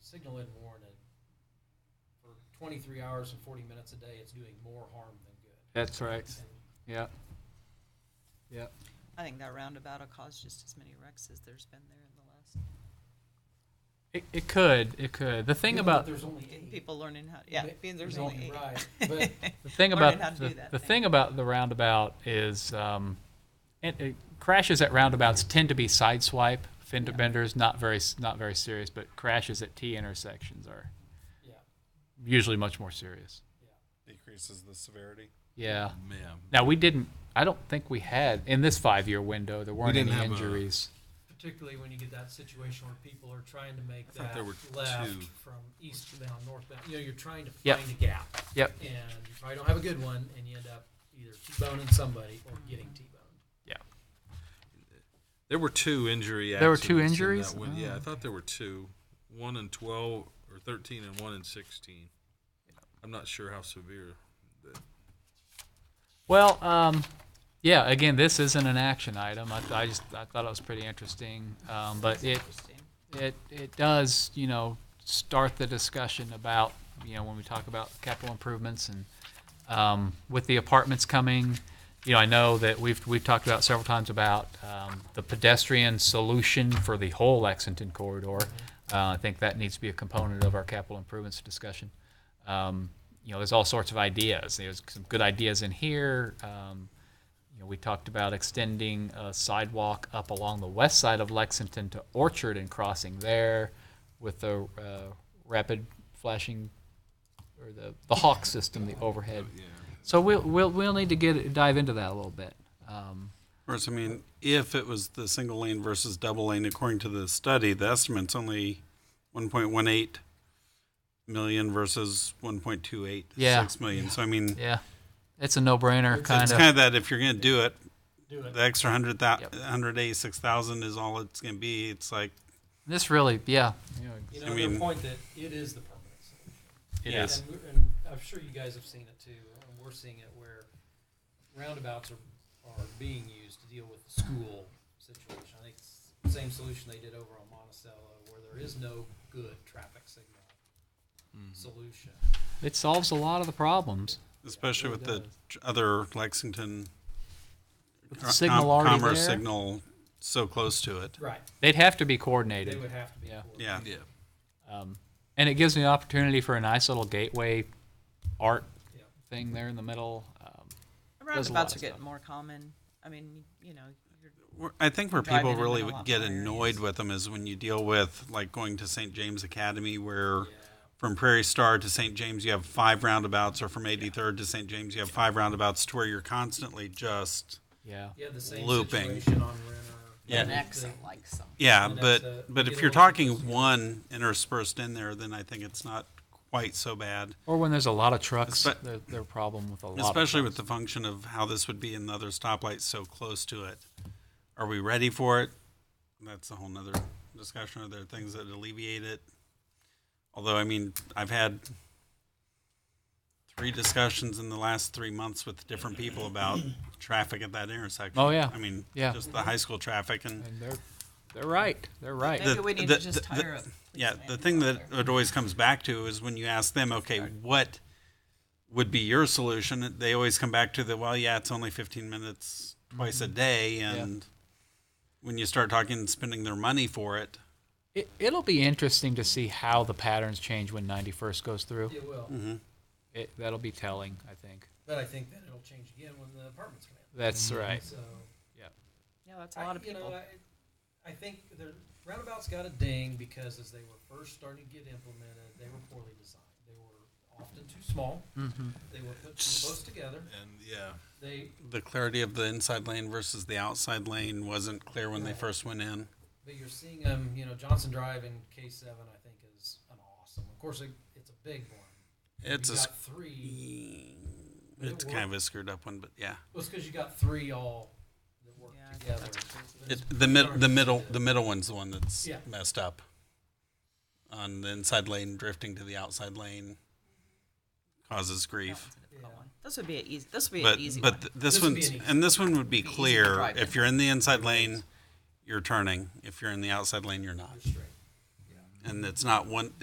signal in more and it, for twenty-three hours and forty minutes a day, it's doing more harm than good. That's right. And Yeah. Yeah. I think that roundabout will cause just as many wrecks as there's been there in the last, It, it could. It could. The thing given that about There's only and eight. people learning how, yeah, Ma- being there's ma- only eight. Right, but the thing learning about how to the, do that the thing. thing about the roundabout is um, it, it, crashes at roundabouts tend to be sideswipe fender Yeah. benders, not very s- not very serious, but crashes at T intersections are yeah, usually much more serious. decreases the severity. Yeah. Man, Now we didn't. I don't think we had in this five-year window. There weren't didn't any have a- injuries. particularly when you get that situation where people are trying to make thought that there were left two. from eastbound, northbound, you know, you're trying to Yep. find a gap. Yep. And you probably don't have a good one and you end up either T-boning somebody or getting T-boned. there were two injury. There were two accidents in injuries? that one. Oh, Yeah, I thought there were two, one in twelve or thirteen, and one in sixteen. I'm not sure how severe. that- Well, um, yeah. Again, this isn't an action item. I, I just I thought it was pretty interesting, um, but it Interesting. it it does you know start the discussion about you know when we talk about capital improvements and um, with the apartments coming. You know, I know that we've we've talked about several times about um, the pedestrian solution for the whole Lexington corridor. Uh, I think that needs to be a component of our capital improvements discussion. Um, you know, there's all sorts of ideas. There's some good ideas in here. Um, you know, we talked about extending a sidewalk up along the west side of Lexington to Orchard and crossing there with the uh, rapid flashing or the, the hawk system, the overhead. Yeah. So we'll, we'll, we'll need to get dive into that a little bit. Um, Whereas, I mean, if it was the single lane versus double lane, according to the study, the estimate's only 1.18 million versus 1.286 Yeah. million. So, I mean, yeah, it's a no brainer it's- kind it's of. kind of that if you're going to do it, Do it. the extra 100,000 Yep. 186,000 is all it's going to be. It's like, This really, yeah. You I know, your mean- point that it is the permanent solution. it Yeah. is. And, we're- and I'm sure you guys have seen it too, and we're seeing it where roundabouts are, are being used to deal with the school situation. I think it's the same solution they did over on Monticello, where there is no good traffic signal Mm-hmm. solution. It solves a lot of the problems. especially really with the does. tr- other Lexington With the com- signal already commerce there. signal so close to it. Right. They'd have to be They coordinated. would have to be. Yeah. coordinated. Yeah. Yeah. Um, and it gives me an opportunity for a nice little gateway art Yeah. thing there in the middle. Um, lot of Roundabouts are stuff. getting more common. I mean, you know, you're We're- I think where Drive people it in really a would lot get more areas. annoyed with them is when you deal with like going to St. James Academy, where Yeah. from Prairie Star to St. James you have five roundabouts, or from 83rd to St. James you have five roundabouts, to where you're constantly just yeah. You had the same Looping. situation on Renner. Yeah. The- like some. yeah. And that's, But uh, but you if get you're a lot of talking those. one interspersed in there, then I think it's not quite so bad. Or when there's a lot of trucks, Espe- they're, they're a problem with a lot. especially of with the function of how this would be another stoplight so close to it. Are we ready for it? That's a whole nother discussion. Are there things that alleviate it? Although, I mean, I've had three discussions in the last three months with different people about traffic at that intersection. Oh, yeah. I mean, Yeah. just the high school traffic and and they're they're right. They're right. Maybe the- we need the- to just the- hire up. yeah, the thing that it always comes back to is when you ask them, okay, what would be your solution? They always come back to the, well, yeah, it's only 15 minutes twice a Mm-hmm. day. And when you start talking and spending their money for it, it, it'll be interesting to see how the patterns change when 91st goes through. It will, Mm-hmm. It, that'll be telling, I think. but I think then it'll change again when the apartments come in. Mm-hmm. That's right. So. Yeah, that's a lot of I- you know, people. I- I think the roundabouts got a ding because as they were first starting to get implemented, they were poorly designed. They were often too small. Mm-hmm. They were put too close together. And yeah. They, the clarity of the inside lane versus the outside lane wasn't clear when they first went in. but you're seeing them, you know, Johnson Drive in K seven, I think is an awesome. Of course, it, it's a big one. It's You a, got three, it's It kind of a screwed up one, but yeah. well, it's cause you got three all that work Yeah, I think together. that's crazy. But It, it's the mid, hard the to middle, do. the middle one's the one that's Yeah. messed up. On the inside lane, drifting to the outside lane causes That grief. one's a difficult Yeah. one. This would be an easy, this would be But, an easy one. but th- this This would be one's, an easy- and this one would be Be easy to clear. drive If in. you're in the inside lane, you're turning. If you're in the outside lane, you're not. You're straight. And it's not one,